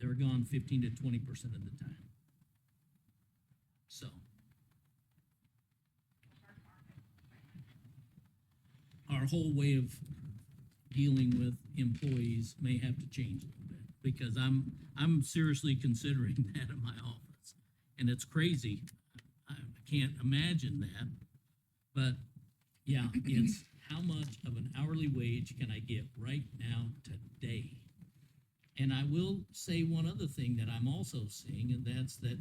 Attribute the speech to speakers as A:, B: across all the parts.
A: They were gone fifteen to twenty percent of the time. So. Our whole way of dealing with employees may have to change a little bit, because I'm, I'm seriously considering that in my office. And it's crazy, I can't imagine that, but, yeah, it's how much of an hourly wage can I get right now, today? And I will say one other thing that I'm also seeing, and that's that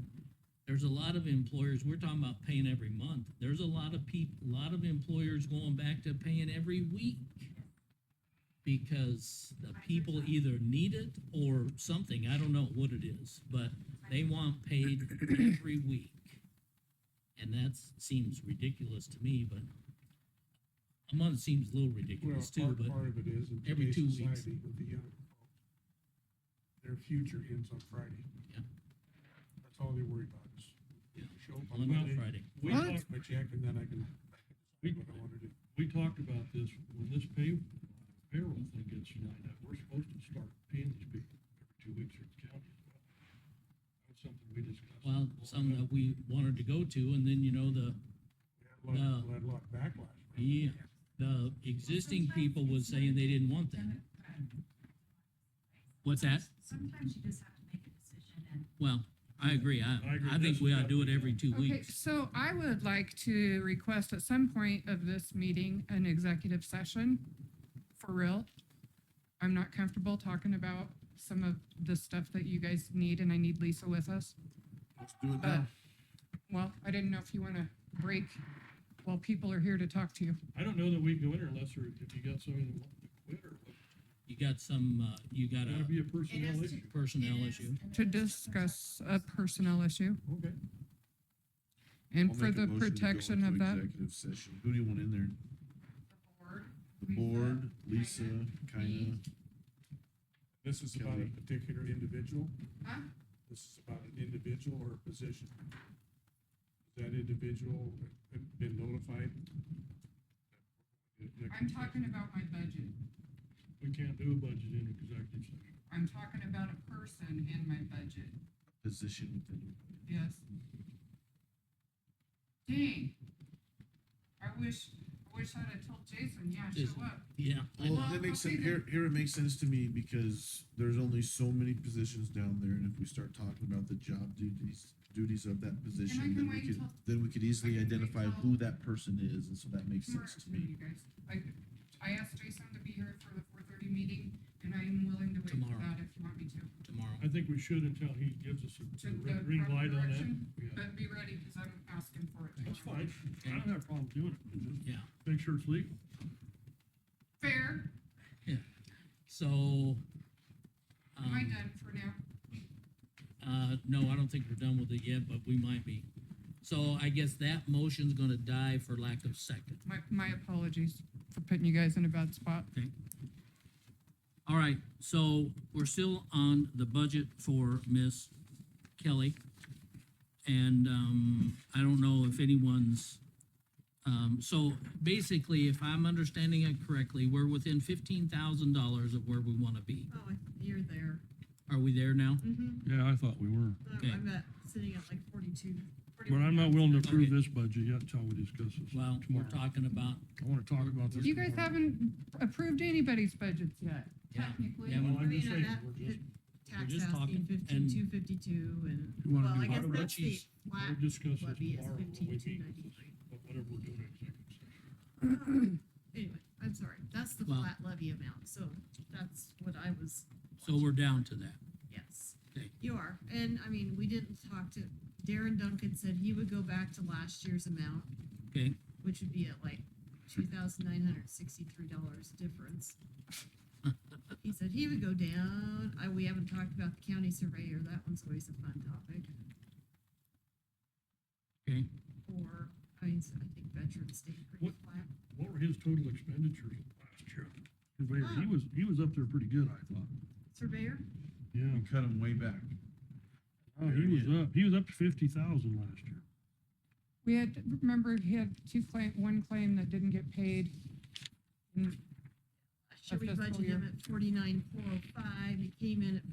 A: there's a lot of employers, we're talking about paying every month. There's a lot of people, a lot of employers going back to paying every week. Because the people either need it or something, I don't know what it is, but they want paid every week. And that seems ridiculous to me, but a month seems a little
B: Well,
A: ridiculous too,
B: part,
A: but.
B: part of it is in
A: every
B: today's
A: two weeks.
B: society with the young folks. Their future ends on Friday.
A: Yeah.
B: That's all they worry about is.
A: Yeah.
B: Show up on
A: Well, not
B: Monday,
A: Friday.
C: We
D: What?
C: talked,
B: my check, and then I can,
C: we,
B: do what I wanna do.
C: we talked about this when this pay, payroll thing gets lined up. We're supposed to start paying these people every two weeks or the county as well. That's something we discussed.
A: Well, some that we wanted to go to, and then, you know, the,
B: We had a lot,
A: No.
B: we had a lot of backlash. for it.
A: yeah, the existing people was saying they didn't want that. What's that?
E: Sometimes you just have to make a decision and
A: Well, I agree. I,
C: I agree.
A: I think we ought to do it every two
D: Okay,
A: weeks.
D: so I would like to request at some point of this meeting, an executive session, for real. I'm not comfortable talking about some of the stuff that you guys need, and I need Lisa with us.
F: Let's do it
D: But,
F: now.
D: well, I didn't know if you want to break while people are here to talk to you.
C: I don't know that we can go in there unless there, if you got somebody that wants to quit or what.
A: You got some, uh, you got
C: Gotta
A: a
C: be a personnel issue.
A: personnel issue.
D: To discuss a personnel issue
C: Okay.
D: and
F: I'll
D: for
F: make a
D: the
F: motion to go
D: protection
F: into
D: of that.
F: Executive session. Who do you want in there? The
E: Lisa,
F: board, Lisa,
E: me.
F: Kaina,
B: This is about a
F: Kelly.
B: particular individual.
D: Huh?
B: This is about an individual or a position. That individual have been notified.
D: I'm talking about my budget.
C: We can't do a budget in executive session.
D: I'm talking about a person in my budget.
F: position within.
D: Yes. Dang. I wish, I wish I'd have told Jason, yeah,
A: Jason.
D: show up.
A: Yeah. I know.
F: Well, that makes sense.
D: okay
F: Here, here it makes sense to me because there's only so many positions down there and if we start talking about the job duties, duties of that
D: I
F: position,
D: can
F: then we
D: wait
F: could,
D: till-
F: then we could easily
D: I can wait
F: identify
D: till-
F: who that person is. And so that makes
D: Tomorrow,
F: sense to me.
D: You guys, I, I asked Jason to be here for the four thirty meeting, and I'm willing to wait for
A: Tomorrow.
D: that if you want me to.
A: Tomorrow.
C: I think we should until he gives us a
D: To
C: a
D: the
C: red- green
D: proper
C: light on that.
D: direction?
C: Yeah,
D: But be ready, cause I'm asking for it
C: that's
D: tomorrow.
C: fine. I don't have a problem doing it. Just
A: Yeah.
C: make sure it's legal.
D: Fair,
A: So.
D: am I
A: um,
D: done for now?
A: Uh, no, I don't think we're done with it yet, but we might be. So I guess that motion's gonna die for lack of second.
D: My, my apologies for putting you guys in a bad spot.
A: All right, so we're still on the budget for Miss Kelly. And, um, I don't know if anyone's, um, so basically, if I'm understanding it correctly, we're within fifteen thousand dollars of where we wanna be.
G: Oh, I- you're there.
A: Are we there now?
G: Mm-hmm.
C: Yeah, I thought we were.
A: Okay.
G: I'm at, sitting at like forty-two.
C: But I'm not willing to approve
A: Okay.
C: this budget yet until we discuss this.
A: Well, we're talking about,
C: I wanna talk about this.
D: You guys
C: tomorrow.
D: haven't approved anybody's budgets yet.
A: yeah,
G: Technically,
A: yeah,
G: I
A: well,
C: I'm just
G: mean,
C: saying,
G: on that,
C: we're
G: the
C: just-
A: we're
G: tax
A: just
G: asking
A: talking
G: fifteen,
A: and-
G: two fifty-two and,
C: You wanna
G: well,
C: do
G: I guess
C: part of
G: that's the
A: Richie's-
G: flat
C: We'll discuss this
G: levy is
C: tomorrow when we
G: fifteen, two
C: meet,
G: ninety-three.
C: but whatever we're doing in executive session.
G: Anyway, I'm sorry, that's the
A: Well-
G: flat levy amount, so that's what I was,
A: so we're down to that.
G: yes.
A: Okay.
G: You are, and I mean, we didn't talk to, Darren Duncan said he would go back to last year's amount.
A: Okay.
G: Which would be at like two thousand nine hundred sixty-three dollars difference. He said he would go down, I, we haven't talked about the county surveyor, that one's always a fun topic.
A: Okay.
G: Or, I mean, so I think veterans stayed pretty
C: What-
G: flat.
C: What were his total expenditures last year? Surveyor, he
G: Oh.
C: was, he was up there pretty good, I thought.
G: Surveyor?
C: Yeah.
F: We cut them way back.
C: Oh, he
F: Very
C: was up, he was up to fifty thousand last year.
D: We had, remember, he had two claim, one claim that didn't get paid. And
G: Last year we
D: Our fiscal
G: budgeted
D: year.
G: him at forty-nine, four oh five, he came in at